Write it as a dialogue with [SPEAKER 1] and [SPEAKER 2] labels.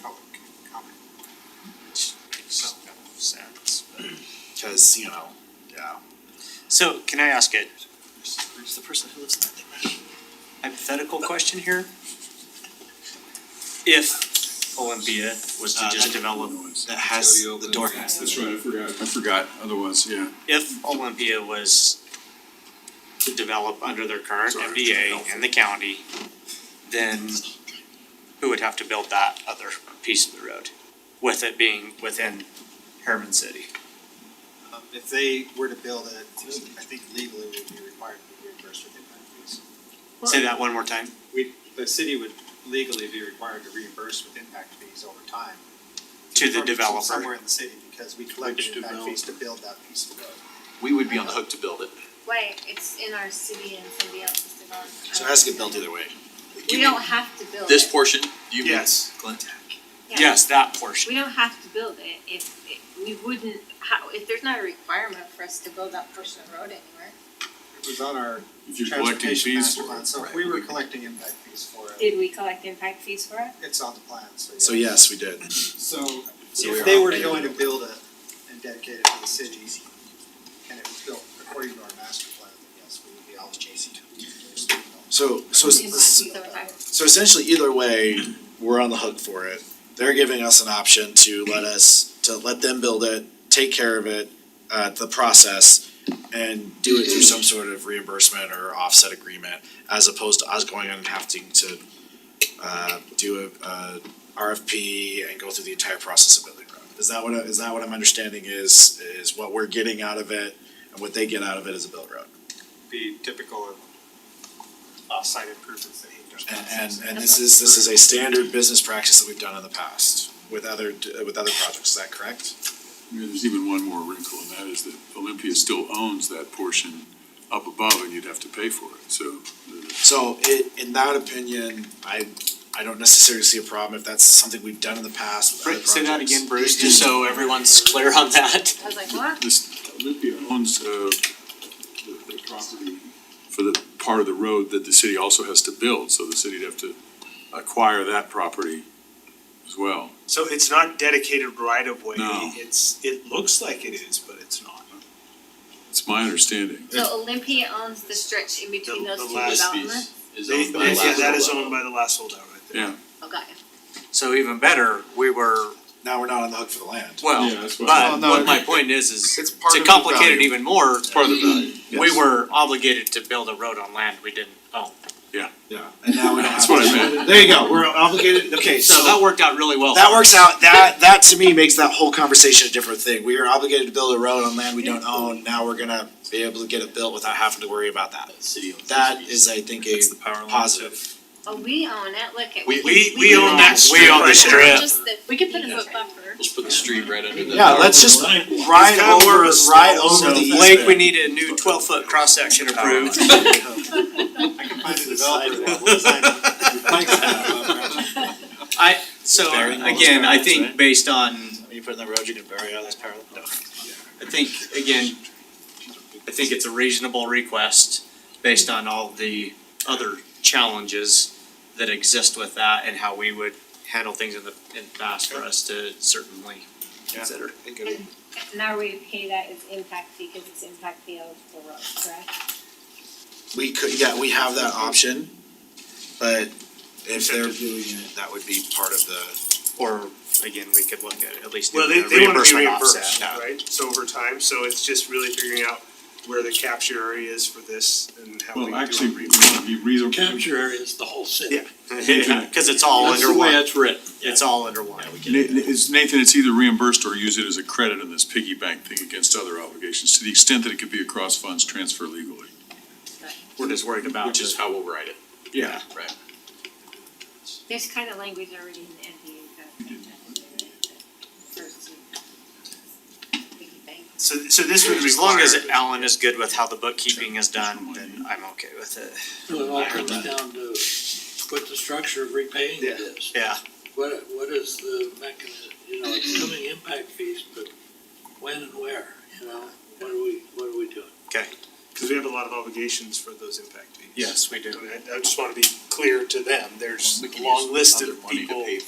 [SPEAKER 1] public comment.
[SPEAKER 2] Makes sense.
[SPEAKER 1] Cause, you know, yeah.
[SPEAKER 2] So can I ask a
[SPEAKER 3] Who's the person who lives in that thing?
[SPEAKER 2] hypothetical question here? If Olympia was to
[SPEAKER 3] Uh,
[SPEAKER 2] just
[SPEAKER 3] that-
[SPEAKER 2] develop,
[SPEAKER 3] That has, the door has.
[SPEAKER 4] That's right, I forgot, I forgot, otherwise, yeah.
[SPEAKER 2] if Olympia was to develop under their current
[SPEAKER 4] Sorry,
[SPEAKER 2] MDA and the county, then who would have to build that other piece of the road? With it being within Herman City.
[SPEAKER 1] Um, if they were to build it, I think legally we'd be required to reimburse with impact fees.
[SPEAKER 2] Say that one more time.
[SPEAKER 1] We, the city would legally be required to reimburse with impact fees over time.
[SPEAKER 2] To the
[SPEAKER 1] From- from
[SPEAKER 2] developer.
[SPEAKER 1] Somewhere in the city, because we collected
[SPEAKER 4] Which
[SPEAKER 1] impact
[SPEAKER 4] develop-
[SPEAKER 1] fees to build that piece of road.
[SPEAKER 3] We would be on the hook to build it.
[SPEAKER 5] Wait, it's in our city and somebody else's development.
[SPEAKER 3] So it has to get built either way.
[SPEAKER 5] We don't have to build it.
[SPEAKER 3] This portion, you mean?
[SPEAKER 1] Yes.
[SPEAKER 3] Clint?
[SPEAKER 5] Yeah.
[SPEAKER 2] Yes, that portion.
[SPEAKER 5] We don't have to build it if, it- we wouldn't, how, if there's not a requirement for us to build that portion of road anywhere.
[SPEAKER 1] It was on our
[SPEAKER 4] If you're collecting
[SPEAKER 1] transportation
[SPEAKER 4] fees
[SPEAKER 1] master
[SPEAKER 4] for
[SPEAKER 1] plan,
[SPEAKER 4] it.
[SPEAKER 1] so if
[SPEAKER 3] right,
[SPEAKER 1] we
[SPEAKER 3] we
[SPEAKER 1] were
[SPEAKER 3] could-
[SPEAKER 1] collecting impact fees for it,
[SPEAKER 6] Did we collect impact fees for it?
[SPEAKER 1] it's on the plan, so yeah.
[SPEAKER 7] So yes, we did.
[SPEAKER 1] So
[SPEAKER 3] So we
[SPEAKER 1] if
[SPEAKER 3] are
[SPEAKER 1] they were
[SPEAKER 3] obligated.
[SPEAKER 1] going to build it and dedicate it to the city, and it was built according to our master plan, then yes, we would be obligated to reimburse the developer.
[SPEAKER 7] So so
[SPEAKER 5] So
[SPEAKER 7] so
[SPEAKER 5] we're not-
[SPEAKER 7] essentially, either way, we're on the hook for it. They're giving us an option to let us to let them build it, take care of it, uh, the process, and do it through some sort of reimbursement or offset agreement, as opposed to us going and having to uh, do a, a RFP and go through the entire process of building. the road. Is that what I- is that what I'm understanding is is what we're getting out of it and what they get out of it is a build road.
[SPEAKER 1] Be typical of off-site improvements that he does.
[SPEAKER 7] And and and this is, this is a standard business practice that we've done in the past with other, with other projects, is that correct?
[SPEAKER 4] I mean, There's even one more wrinkle, and that is that Olympia still owns that portion up above, and you'd have to pay for it, so. the-
[SPEAKER 7] So it, in that opinion, I, I don't necessarily see a problem if that's something we've done in the past with other projects.
[SPEAKER 2] Say that again, Bruce, just so everyone's clear on that.
[SPEAKER 5] I was like, what?
[SPEAKER 4] This, Olympia owns, uh, the, the property for the part of the road that the city also has to build, so the city'd have to acquire that property as well.
[SPEAKER 8] So it's not dedicated right of way,
[SPEAKER 4] No.
[SPEAKER 8] it's, it looks like it is, but it's not.
[SPEAKER 4] It's my understanding.
[SPEAKER 5] So Olympia owns the stretch in between
[SPEAKER 8] The-
[SPEAKER 5] those
[SPEAKER 8] the
[SPEAKER 5] two
[SPEAKER 8] last
[SPEAKER 5] developments?
[SPEAKER 8] They- they- yeah, that is owned by the last holdout right there.
[SPEAKER 4] Yeah.
[SPEAKER 5] Oh, got you.
[SPEAKER 2] So even better, we were,
[SPEAKER 7] Now we're not on the hook for the land.
[SPEAKER 2] well,
[SPEAKER 4] Yeah, that's what-
[SPEAKER 2] but
[SPEAKER 4] Well,
[SPEAKER 1] no,
[SPEAKER 2] what my point is, is
[SPEAKER 1] It's part
[SPEAKER 2] to
[SPEAKER 1] of the
[SPEAKER 2] complicate it
[SPEAKER 1] value.
[SPEAKER 2] even more,
[SPEAKER 4] Part of the value.
[SPEAKER 2] we were obligated to build a road on land we didn't own.
[SPEAKER 7] Yeah, and now we don't have.
[SPEAKER 4] That's what I meant.
[SPEAKER 7] There you go, we're obligated, okay,
[SPEAKER 2] So that worked out really well.
[SPEAKER 7] That works out, that, that to me makes that whole conversation a different thing, we are obligated to build a road on land we don't own, now we're gonna be able to get it built without having to worry about that. That is, I think, a positive.
[SPEAKER 5] Oh, we own it, look at.
[SPEAKER 3] We-
[SPEAKER 8] We, we own that strip
[SPEAKER 2] We own the
[SPEAKER 8] right there.
[SPEAKER 2] strip.
[SPEAKER 5] Just the- We could put a foot buffer.
[SPEAKER 3] Let's put the street right under the.
[SPEAKER 7] Yeah, let's just ride
[SPEAKER 8] kinda
[SPEAKER 7] over,
[SPEAKER 8] more of a
[SPEAKER 7] ride
[SPEAKER 8] stone,
[SPEAKER 7] over
[SPEAKER 2] So
[SPEAKER 7] the easement.
[SPEAKER 2] Blake, we need a new twelve foot cross section approved.
[SPEAKER 1] I can find a
[SPEAKER 7] sidewalk.
[SPEAKER 1] developer. Thanks.
[SPEAKER 2] I, so
[SPEAKER 7] Burying all those
[SPEAKER 2] again, I
[SPEAKER 7] parallels,
[SPEAKER 2] think
[SPEAKER 7] right?
[SPEAKER 2] based on,
[SPEAKER 7] You put in the road, you can bury all those parallel.
[SPEAKER 2] I think, again, I think it's a reasonable request based on all the other challenges that exist with that and how we would handle things in the, in the past for us to certainly consider.
[SPEAKER 6] Now we pay that as impact fee because it's impact fee eligible road, correct?
[SPEAKER 7] We could, yeah, we have that option, but if they're doing it, that would be part of the,
[SPEAKER 2] Or again, we could look at at least
[SPEAKER 8] Well,
[SPEAKER 2] doing
[SPEAKER 8] they,
[SPEAKER 2] a
[SPEAKER 8] they wanna be
[SPEAKER 2] reimbursement
[SPEAKER 8] reimbursed,
[SPEAKER 2] offset. Yeah.
[SPEAKER 8] right, so over time, so it's just really figuring out where the capture area is for this and how we do
[SPEAKER 4] Well,
[SPEAKER 8] it.
[SPEAKER 4] actually, it'd be reasonable.
[SPEAKER 9] Capture area is the whole city.
[SPEAKER 2] Yeah, cause it's all
[SPEAKER 9] That's
[SPEAKER 2] under
[SPEAKER 9] the way
[SPEAKER 2] one,
[SPEAKER 9] it's written.
[SPEAKER 2] it's all under one.
[SPEAKER 4] Na- it's- Nathan, it's either reimbursed or use it as a credit in this piggy bank thing against other obligations, to the extent that it could be a cross funds transfer legally.
[SPEAKER 2] We're just worried about
[SPEAKER 3] Which is
[SPEAKER 2] just
[SPEAKER 3] how we'll write it.
[SPEAKER 4] Yeah.
[SPEAKER 3] Right.
[SPEAKER 5] There's kind of language already in the NDA that- First, we can bank.
[SPEAKER 2] So, so this would As long as Alan is good with how the bookkeeping is done, then I'm okay with it.
[SPEAKER 9] So it all
[SPEAKER 2] I heard
[SPEAKER 9] comes down to what the structure of repaying it is.
[SPEAKER 2] Yeah.
[SPEAKER 9] What, what is the mechanism, you know, it's coming impact fees, but when and where, you know? What are we, what are we doing?
[SPEAKER 8] Cause we have a lot of obligations for those impact fees.
[SPEAKER 2] Yes, we
[SPEAKER 8] And I, I just wanna be clear to them, there's
[SPEAKER 3] We can
[SPEAKER 8] a
[SPEAKER 3] use
[SPEAKER 8] long list of